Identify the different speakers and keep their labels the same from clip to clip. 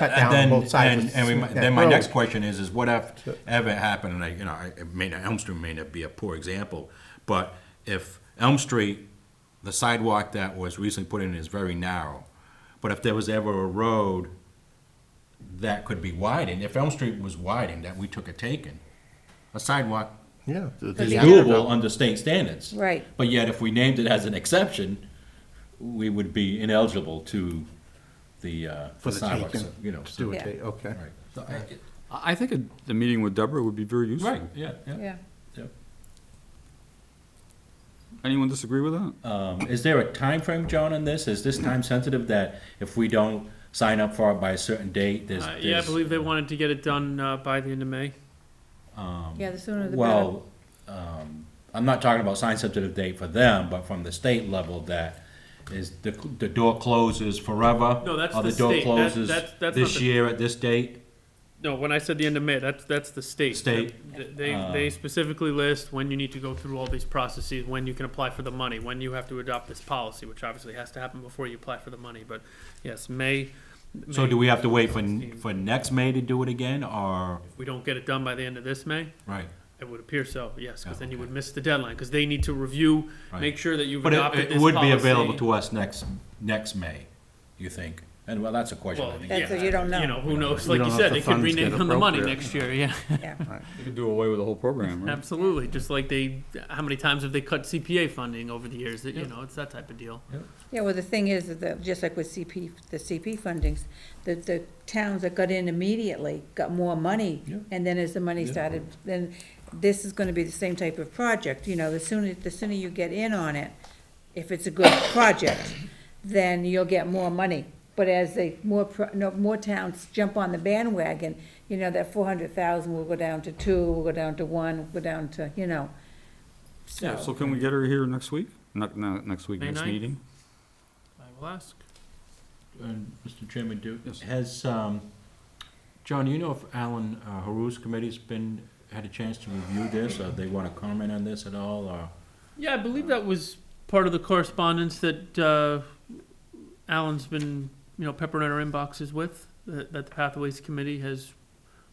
Speaker 1: cut
Speaker 2: And
Speaker 1: down on
Speaker 2: then-
Speaker 1: both sides.
Speaker 2: and-
Speaker 1: with-
Speaker 2: And we, might-
Speaker 1: yeah,
Speaker 2: then my
Speaker 1: road.
Speaker 2: next question is, is what if, ever happened, and I, you know, I- it may, not- Elm Street may not be a poor example, but if Elm Street, the sidewalk that was recently put in is very narrow, but if there was ever a road that could be widened, if Elm Street was widened, that we took a taken, a sidewalk
Speaker 1: Yeah.
Speaker 2: is
Speaker 3: be
Speaker 2: doable under state standards.
Speaker 3: Right.
Speaker 2: But yet, if we named it as an exception, we would be ineligible to the, uh,
Speaker 1: For the
Speaker 2: sidewalks,
Speaker 1: taking.
Speaker 2: you know.
Speaker 1: Just do
Speaker 3: Yeah.
Speaker 1: it, ta- okay.
Speaker 2: Right. So I-
Speaker 4: I I think a- the meeting with Deborah would be very useful.
Speaker 2: Right, yeah, yeah.
Speaker 3: Yeah.
Speaker 4: Anyone disagree with that?
Speaker 2: Um, is there a time frame, John, on this? Is this time sensitive that if we don't sign up for it by a certain date, there's?
Speaker 5: Uh, yeah, I
Speaker 2: there's-
Speaker 5: believe they wanted to get it done uh, by the end of May.
Speaker 3: Yeah, the sooner the
Speaker 2: Um,
Speaker 3: better.
Speaker 2: Well, um, I'm not talking about sign sensitive date for them, but from the state level that is the, the door closes forever?
Speaker 5: No, that's
Speaker 2: or
Speaker 5: the state. That-
Speaker 2: door closes
Speaker 5: that's- that's not
Speaker 2: This
Speaker 5: the-
Speaker 2: year at this date?
Speaker 5: No, when I said the end of May, that's that's the state.
Speaker 2: State. Uh.
Speaker 5: They they, they specifically list when you need to go through all these processes, when you can apply for the money, when you have to adopt this policy, which obviously has to happen before you apply for the money. But yes, May.
Speaker 2: So
Speaker 5: May,
Speaker 2: do we have to wait for, for next May to do it again, or?
Speaker 5: if we don't get it done by the end of this May?
Speaker 2: Right.
Speaker 5: It would appear so, yes, because
Speaker 2: Yeah,
Speaker 5: then you
Speaker 2: okay.
Speaker 5: would miss the deadline because they need to review,
Speaker 2: Right.
Speaker 5: make sure that you've
Speaker 2: But
Speaker 5: adopted
Speaker 2: it, it
Speaker 5: this
Speaker 2: would be
Speaker 5: policy.
Speaker 2: available to us next, next May, you think? And well, that's a question. I
Speaker 5: Well,
Speaker 2: think.
Speaker 3: That's
Speaker 5: yeah,
Speaker 3: what you don't know.
Speaker 5: You know, who knows?
Speaker 1: We
Speaker 5: Like
Speaker 1: don't
Speaker 5: you
Speaker 1: know if
Speaker 5: said,
Speaker 1: the
Speaker 5: they could
Speaker 1: funds get
Speaker 5: rename on the money
Speaker 1: appropriate.
Speaker 5: next year. Yeah.
Speaker 3: Yeah.
Speaker 4: You could do away with the whole program, right?
Speaker 5: Absolutely, just like they, how many times have they cut CPA funding over the years, that, you know, it's that type of deal.
Speaker 3: Yeah, well, the thing is that, just like with CP, the CP fundings, the, the towns that got in immediately got more money.
Speaker 2: Yeah.
Speaker 3: And then as the money started, then this is gonna be the same type of project, you know, the sooner, the sooner you get in on it, if it's a good project, then you'll get more money. But as they, more, pro- no, more towns jump on the bandwagon, you know, that four hundred thousand will go down to two, will go down to one, will go down to, you know.
Speaker 4: Yeah, so can we get her here next week? Not, not next week,
Speaker 5: May
Speaker 4: next
Speaker 5: 9th?
Speaker 4: meeting?
Speaker 5: I will ask.
Speaker 2: And Mr. uh, Chairman, do,
Speaker 4: Yes.
Speaker 2: has, um, John, you know if Alan uh, Haru's committee's been, had a chance to review this, or they wanna comment on this at all, or?
Speaker 5: Yeah, I believe that was part of the correspondence that, uh, Alan's been, you know, peppering our inboxes with, that, that the Pathways Committee has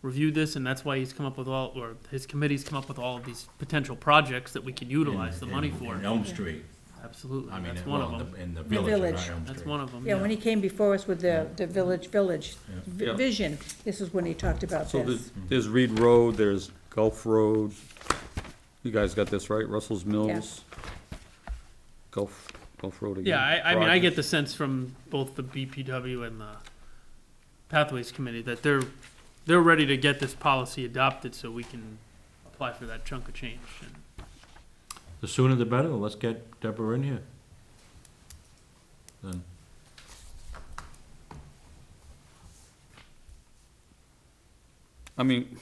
Speaker 5: reviewed this, and that's why he's come up with all, or his committee's come up with all of these potential projects that we can utilize the
Speaker 2: in-
Speaker 5: money
Speaker 2: in-
Speaker 5: for.
Speaker 2: In Elm Street,
Speaker 5: Absolutely,
Speaker 2: I mean,
Speaker 5: that's
Speaker 2: in-
Speaker 5: one of
Speaker 2: well,
Speaker 5: them.
Speaker 2: the- in the village,
Speaker 3: village.
Speaker 2: not Elm
Speaker 5: That's
Speaker 2: Street.
Speaker 5: one of them,
Speaker 3: Yeah, when
Speaker 5: yeah.
Speaker 3: he came before us with the, the village, village vi-
Speaker 4: Yeah.
Speaker 3: vision, this is when he talked about
Speaker 4: So there's,
Speaker 3: this.
Speaker 4: there's Reed Road, there's Gulf Road. You guys got this, right? Russell's Mills. Gulf, Gulf Road again.
Speaker 5: Yeah, I, I mean, I
Speaker 4: Rogers.
Speaker 5: get the sense from both the BPW and the Pathways Committee that they're, they're ready to get this policy adopted so we can apply for that chunk of change. And
Speaker 2: The sooner the better, let's get Deborah in here. Then,
Speaker 4: I mean,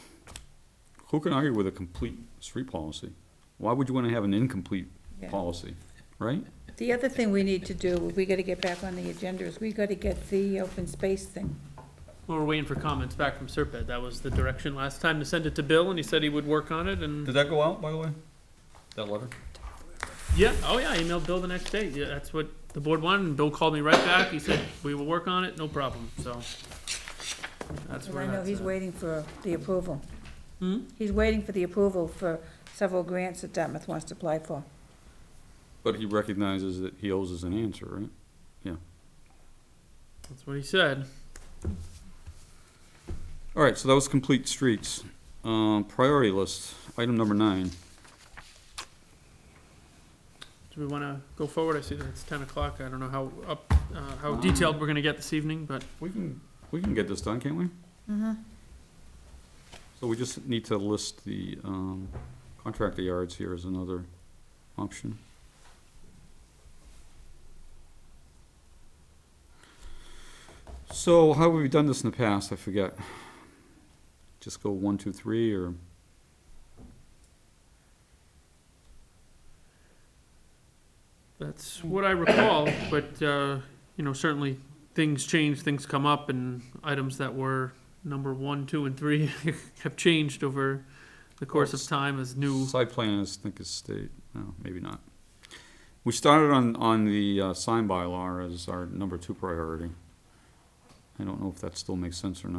Speaker 4: who can argue with a complete street policy? Why would you wanna have an incomplete
Speaker 3: Yeah.
Speaker 4: policy, right?
Speaker 3: The other thing we need to do, we gotta get back on the agenda, is we gotta get the open space thing.
Speaker 5: Well, we're waiting for comments back from Serpent. That was the direction last time to send it to Bill and he said he would work on it and,
Speaker 4: that go out, by the way? That letter?
Speaker 5: yeah, oh yeah, I emailed Bill the next day. Yeah, that's what the board wanted and Bill called me right back. He said, we will work on it, no problem, so. That's
Speaker 3: And
Speaker 5: where
Speaker 3: I know
Speaker 5: that's
Speaker 3: he's
Speaker 5: at.
Speaker 3: waiting for the approval.
Speaker 5: Hmm?
Speaker 3: He's waiting for the approval for several grants that Dartmouth wants to apply for.
Speaker 4: But he recognizes that he owes us an answer, right?
Speaker 5: That's what he said.
Speaker 4: All right, so that was complete streets. Um, priority list, item number nine.
Speaker 5: Do we want to go forward? I see that it's ten o'clock. I don't know how up, uh, how detailed we're gonna get this evening, but
Speaker 4: We can, we can get this done, can't we?
Speaker 3: Mhm.
Speaker 4: So we just need to list the, um, contractor yards here as another option. So how have we done this in the past? I forget. Just go one, two, three, or?
Speaker 5: that's what I recall. But, uh, you know, certainly things change, things come up, and items that were number one, two, and three have changed over the course of time as new.
Speaker 4: Side plan is, I think is state, no, maybe not. We started on, on the uh, sign bylaw as our number two priority. I don't know if that still makes sense or not.